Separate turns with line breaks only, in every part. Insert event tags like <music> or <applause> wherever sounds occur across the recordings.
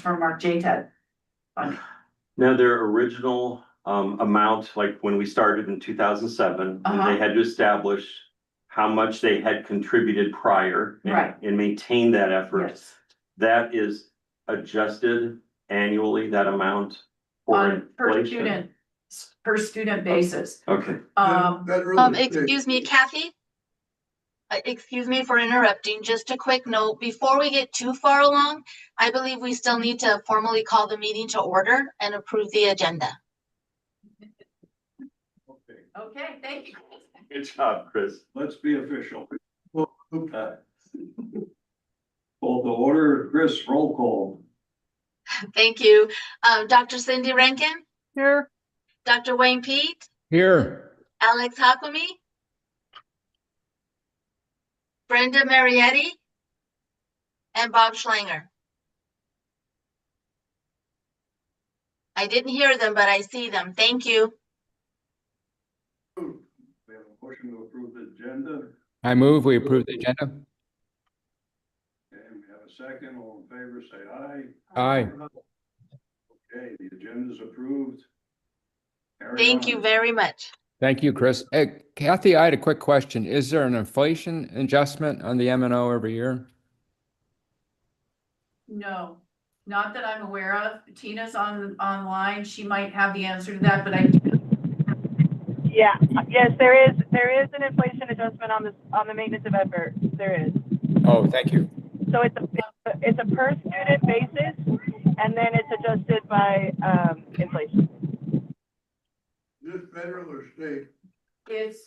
from our JTED. fund.
Now, their original um amount, like when we started in two thousand seven,
Uh-huh.
they had to establish. How much they had contributed prior. and-
Right.
And maintain that effort.
Yes.
That is adjusted annually, that amount. for
On per
inflation.
student, s- per student basis,
Okay,
um,
That really
Um,
is big.
excuse me, Kathy? Uh, excuse me for interrupting. Just a quick note, before we get too far along, I believe we still need to formally call the meeting to order and approve the agenda.
Okay,
okay, thank you.
good job, Chris.
Let's be official. Well, okay. Call the order, Chris, roll call.
Thank you. Uh, Dr. Cindy Rankin,
Here.
Dr. Wayne Pete,
Here.
Alex Hakami, Brenda Marietti, and Bob Schlanger. I didn't hear them, but I see them. Thank you.
We have a motion to approve the agenda,
I move, we approve the agenda.
and we have a second, all in favor, say aye.
Aye.
Okay, the agenda is approved. Carry
Thank you
on.
very much.
Thank you, Chris. Hey, Kathy, I had a quick question. Is there an inflation adjustment on the M and O every year?
No, not that I'm aware of. Tina's on, online. She might have the answer to that, but I,
Yeah, yes, there is, there is an inflation adjustment on the, on the maintenance of effort, there is.
Oh, thank you.
So it's a, it's a per student basis, and then it's adjusted by, um, inflation.
This federal or state?
it's,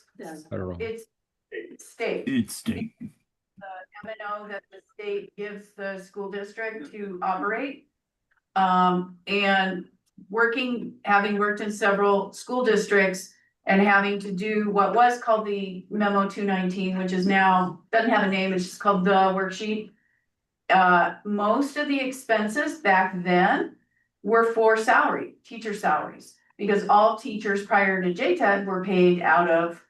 Federal.
it's state.
It's state.
M and O that the state gives the school district to operate. Um, and working, having worked in several school districts and having to do what was called the memo two nineteen, which is now, doesn't have a name, it's just called the worksheet. Uh, most of the expenses back then were for salary, teacher salaries, because all teachers prior to JTED were paid out of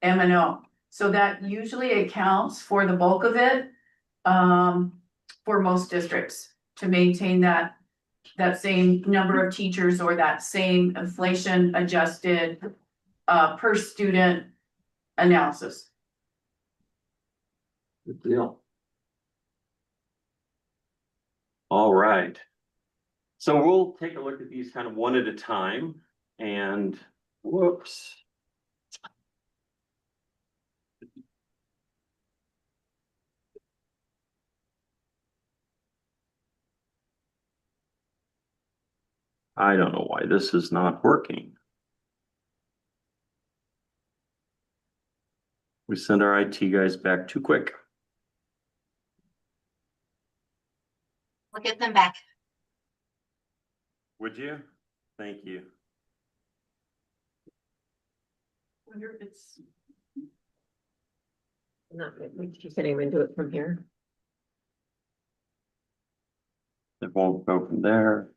M and O. So that usually accounts for the bulk of it, um, for most districts to maintain that. That same number of teachers or that same inflation adjusted, uh, per student analysis.
Good deal. All right. So we'll take a look at these kind of one at a time and whoops. I don't know why this is not working. We send our IT guys back too quick.
We'll get them back.
Would you? Thank you.
Wonder if it's,
Not, you can't even do it from here.
It won't go from there.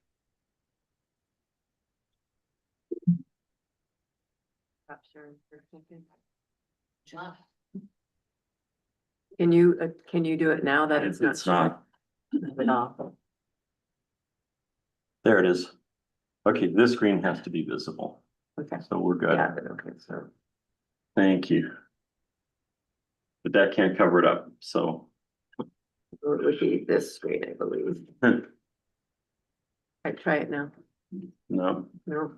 Can you, uh, can you do it now that it's not?
It's not,
showing? At all?
there it is. Okay, this screen has to be visible,
Okay,
so we're good.
yeah, but okay, so.
Thank you. But that can't cover it up, so. <laughs>
It would be this screen, I believe. I try it now.
No,
No.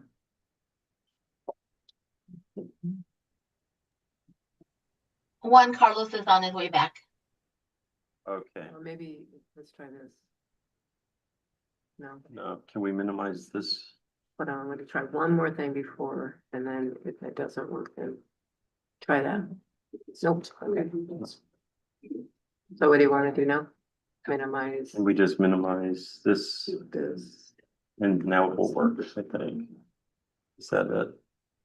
One, Carlos is on his way back.
okay,
Or maybe, let's try this. No,
no, can we minimize this?
but I'm gonna try one more thing before, and then if that doesn't work, then try that. Nope, okay. So what do you wanna do now? Minimize
Can we just minimize this
this.
and now it will work, I think. Is that it?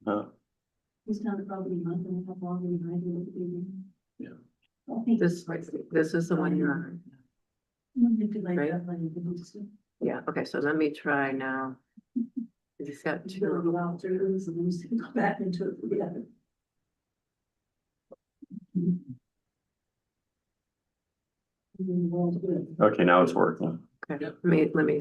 No,
He's not a property month and have longer than I do at the beginning. Yeah. This, this is the one you're on. Right? Yeah, okay, so let me try now. He's got two. Mm-hmm.
okay, now it's working.
Okay, let me, let me